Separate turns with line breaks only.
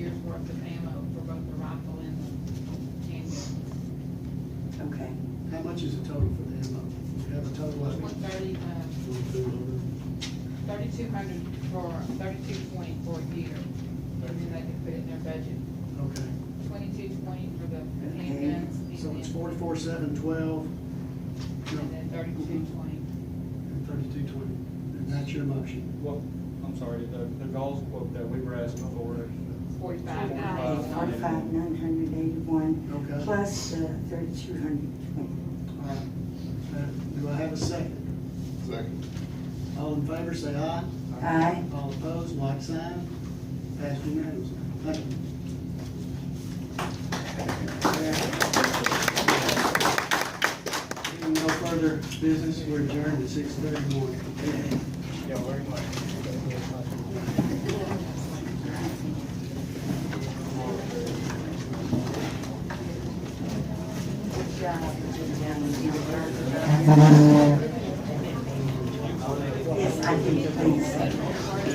much is the total for them? We have a total of.
One thirty, uh, thirty-two hundred for, thirty-two twenty for a year, and then they can put it in their budget.
Okay.
Twenty-two twenty for the handguns, and
And So it's
then,
forty-four, seven, twelve.
and then thirty-two twenty.
And thirty-two, twenty. And that's your motion.
Well, I'm sorry, the, the goals quote that we were asking for.
Forty-five,
Forty-five.
nine.
Forty-five, nine hundred eighty-one,
Okay.
plus uh, thirty-two hundred twenty.
All right. Uh, Do I have a second?
Second.
All in favor, say aye.
Aye.
All opposed, like sign. Passed unanimously. Thank you. Hearing no further business, we're adjourned at six thirty-one.
Yeah, very much.
Good job, good job. Yes, I think the police.